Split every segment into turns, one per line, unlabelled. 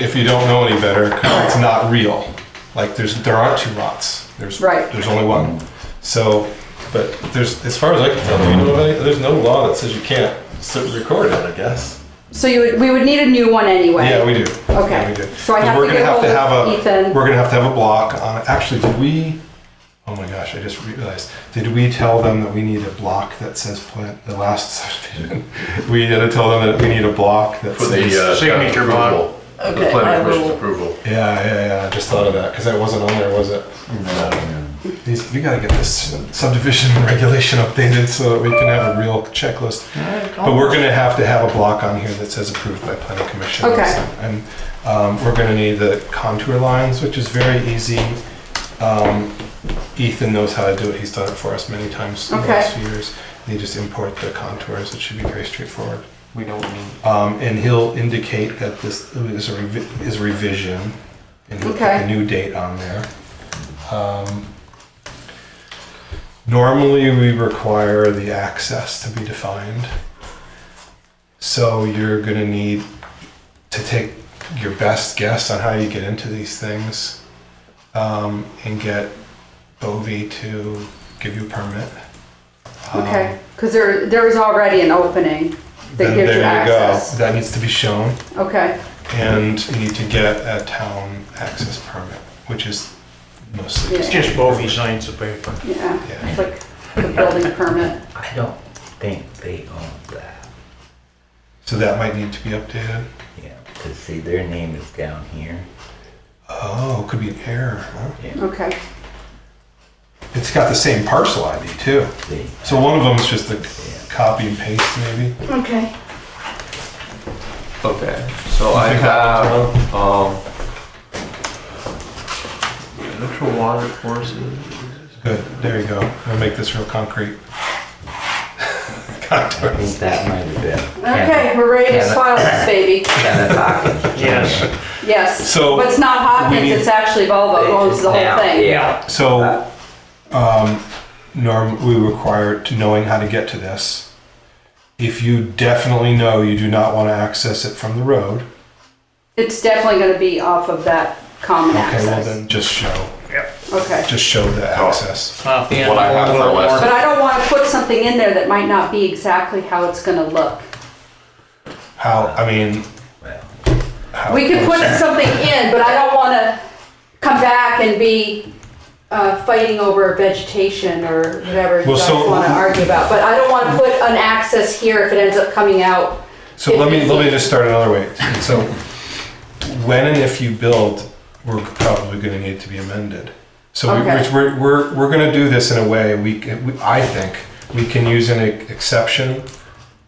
if you don't know any better, 'cause it's not real. Like there's there aren't two lots. There's
Right.
there's only one. So, but there's as far as I can tell, do you know, of any- there's no law that says you can't s- record it. I guess.
So you would, we would need a new one anyway.
Yeah, we do.
Okay.
Yeah, we do.
So I
'Cause
have
we're
to
gonna
get
have to have
hold
a
of Ethan.
we're gonna have to have a block on. Actually, did we? Oh my gosh, I just realized. Did we tell them that we need a block that says plant the last subdivision? we had to tell them that we need a block that
For
says.
the uh,
Signature
approval,
block.
The
Okay, I
planning commission's
will,
approval.
Yeah, yeah, yeah. I just thought of that because that wasn't on there, was it? These, we gotta get this subdivision regulation updated so that we can have a real checklist. But we're gonna have to have a block on here that says approved by planning commission.
Okay.
And um, we're gonna need the contour lines, which is very easy. Um, Ethan knows how to do it. He's done it for us many times in the
Okay.
last few years. You just import the contours. It should be very straightforward.
We don't need.
Um, and he'll indicate that this is a revi- is revision, and he'll put
Okay.
the new date on there. Um, normally, we require the access to be defined. So you're gonna need to take your best guess on how you get into these things, um, and get Bovee to give you a permit. Um,
Okay, because there, there is already an opening that
Then
gives
there
you
you go.
access.
That needs to be shown.
Okay,
and you need to get a town access permit, which is mostly.
It's just Bovee signs the paper.
yeah,
Yeah.
it's like the building permit.
I don't think they own that,
So that might need to be updated.
yeah, because see, their name is down here.
Oh, could be an error. huh?
Okay,
It's got the same parcel ID too.
See,
So one of them is just a copy and paste maybe.
okay.
Okay, so I
think that one's
have, um, natural water courses.
Good, there you go. I'll make this real concrete.
I think
Contours.
that might have been.
Okay, we're ready to
Can I-
file this baby.
Kenneth Hawkins.
Yes,
Yes.
So,
But it's not
we
Hopkins,
need-
it's actually Volvo, owns the
Now,
whole thing.
Yeah,
So, um, Norm, we require to knowing how to get to this. If you definitely know you do not want to access it from the road,
It's definitely gonna be off of that common
okay, well
access.
then just show.
Okay.
just show the access.
off the end
What I have
of
for
Little
West.
Warren.
But I don't wanna put something in there that might not be exactly how it's gonna look.
How, I mean,
well,
how.
We could put something in, but I don't wanna come back and be, uh, fighting over vegetation or whatever you
Well,
guys
so-
wanna argue about. But I don't wanna put an access here if it ends up coming out.
So let me, let me just start another way. So when and if you build, we're probably gonna need to be amended. So we-
Okay.
we're, we're, we're gonna do this in a way, we, can- we- I think, we can use an exception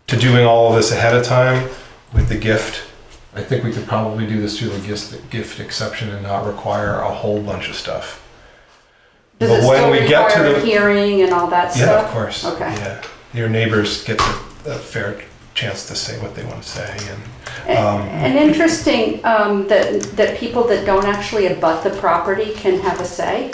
to doing all of this ahead of time with the gift. I think we could probably do this through the gift, gift exception and not require a whole bunch of stuff.
Does
But
it
when
still
we get to
require a
the-
hearing and all that stuff?
Yeah, of course.
Okay.
Yeah, your neighbors get the- a fair chance to say what they want to say and, um,
And interesting um, that, that people that don't actually abut the property can have a say.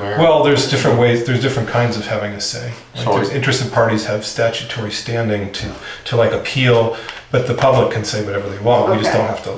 well, there's different ways, there's different kinds of having a say. Like
So-
there's interested parties have statutory standing to, to like appeal, but the public can say whatever they want. We just
Okay.
don't have to,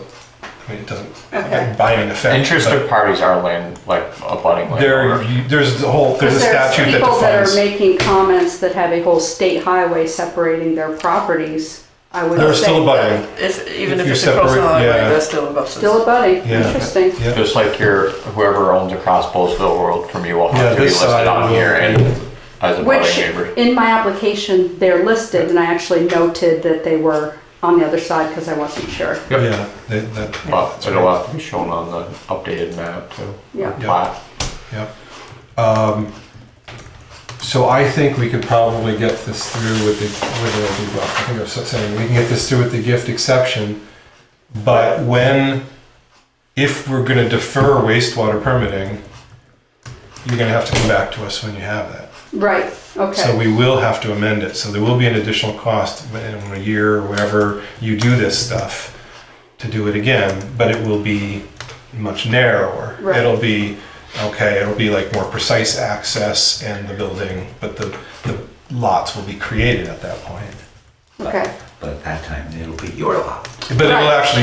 I mean, it doesn't
Okay.
by an effect.
Interested parties are land, like abutting
but There,
landowner.
you- there's a whole, there's a statute that
People that are
defines.
making comments that have a whole state highway separating their properties, I would
They're
say.
still abutting,
if, even
If
if
you
it's across the
separate-
highway,
yeah.
that's still above us.
Still abutting,
Yeah.
interesting.
yeah.
Just like your, whoever owns across Bowlesville Road from you will
Yeah,
have to be
this side
listed on
will
here
be-
and as a
Which,
budding neighbor.
in my application, they're listed, and I actually noted that they were on the other side because I wasn't sure.
Yep.
Yeah, they- that,
But it'll have to be shown on the updated map too.
Yeah.
Yeah.
Plat.
Yep. Um, so I think we could probably get this through with the, with the, I think I was saying, we can get this through with the gift exception. But when, if we're gonna defer wastewater permitting, you're gonna have to come back to us when you have that.
Right,
So
okay,
we will have to amend it, so there will be an additional cost in a year or wherever you do this stuff to do it again, but it will be much narrower.
Right.
It'll be, okay, it'll be like more precise access and the building, but the, the lots will be created at that point.
okay.
but at that time it'll be your lot.
But it will
Right.
actually